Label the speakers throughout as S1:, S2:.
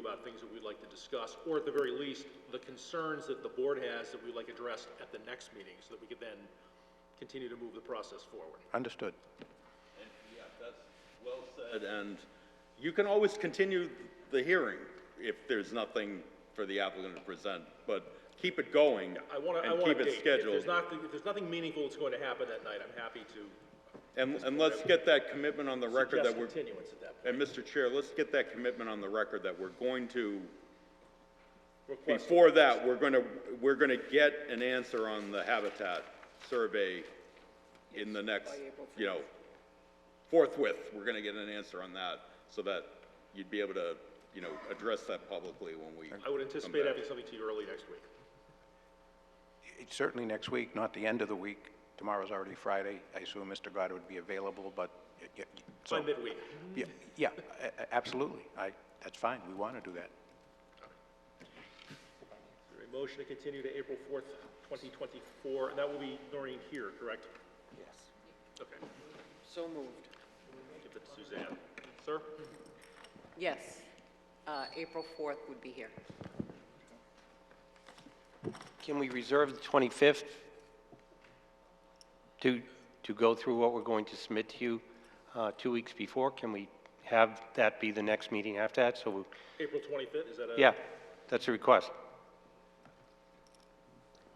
S1: about things that we'd like to discuss, or at the very least, the concerns that the board has that we'd like addressed at the next meeting, so that we could then continue to move the process forward.
S2: Understood.
S3: And, Yeah, that's well said, and you can always continue the hearing if there's nothing for the applicant to present, but keep it going.
S1: I want to, I want a date. If
S3: And keep it
S1: there's
S3: scheduled.
S1: not, if there's nothing meaningful that's going to happen that night, I'm happy to
S3: And, and let's get that commitment on the record
S1: suggest
S3: that we're,
S1: continuance at that point.
S3: and Mr. Chair, let's get that commitment on the record that we're going to,
S1: Request-
S3: before that, we're going to, we're going to get an answer on the habitat survey in the next, you know, forthwith, we're going to get an answer on that, so that you'd be able to, you know, address that publicly when we.
S1: I would anticipate
S3: back.
S1: having something to you early next week.
S2: It's Certainly next week, not the end of the week. Tomorrow's already Friday. I assume Mr. Goddard would be available, but, y- y- y-
S1: By
S2: so,
S1: midweek.
S2: yeah, yeah, a- a- absolutely. I, that's fine. We want to do that.
S1: Is there a motion to continue to April 4th, 2024, and that will be Noreen here, correct?
S4: Yes.
S1: Okay,
S4: So moved.
S1: give that to Suzanne. Sir?
S4: Yes. Uh, April 4th would be here.
S5: Can we reserve the 25th to, to go through what we're going to submit to you uh, two weeks before? Can we have that be the next meeting after that? So, we-
S1: April 25th, is that a?
S5: yeah, that's a request.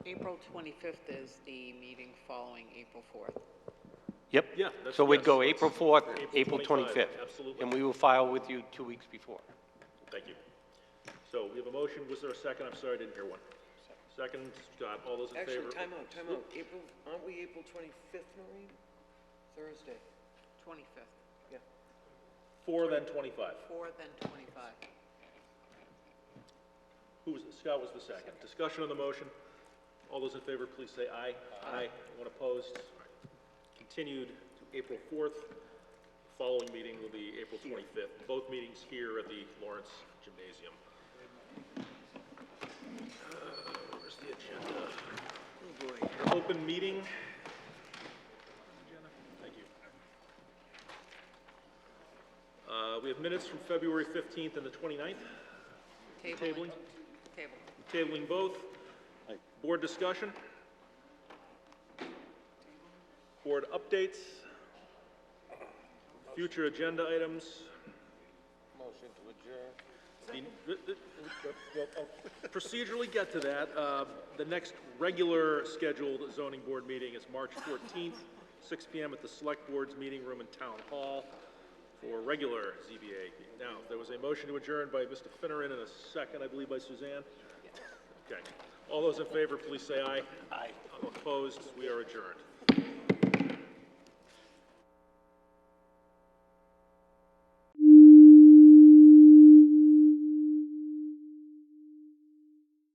S4: April 25th is the meeting following April 4th.
S5: Yep.
S1: Yeah, that's-
S5: So we'd go
S1: yes,
S5: April
S1: let's-
S5: 4th,
S1: April
S5: April
S1: 25th,
S5: 25th.
S1: absolutely.
S5: And we will file with you two weeks before.
S1: Thank you. So we have a motion, was there a second? I'm sorry, I didn't hear one. Second, Scott, all those in favor?
S6: Actually, time out, time out. April, aren't we April 25th, Noreen? Thursday,
S4: 25th.
S6: yeah.
S1: Four, then 25.
S4: 4, then 25.
S1: Who was, Scott was the second. Discussion on the motion. All those in favor, please say aye. Aye. Anyone opposed? Continued to April 4th. Following meeting will be April 25th. Both meetings here at the Lawrence Gymnasium. Uh, Where's the agenda? Oh, boy. Open meeting. Thank you. Uh, We have minutes from February 15th and the 29th. Tabling.
S4: Tabling. Table.
S1: Tabling both. Board discussion. Board updates. Future agenda items. Motion to adjourn. Procedurally get to that. Uh, The next regular scheduled zoning board meeting is March 14th, 6 PM at the Select Board's Meeting Room in Town Hall for regular ZBA. Now, there was a motion to adjourn by Mr. Finneran and a second, I believe, by Suzanne. Okay. All those in favor, please say aye. Aye. Opposed, we are adjourned.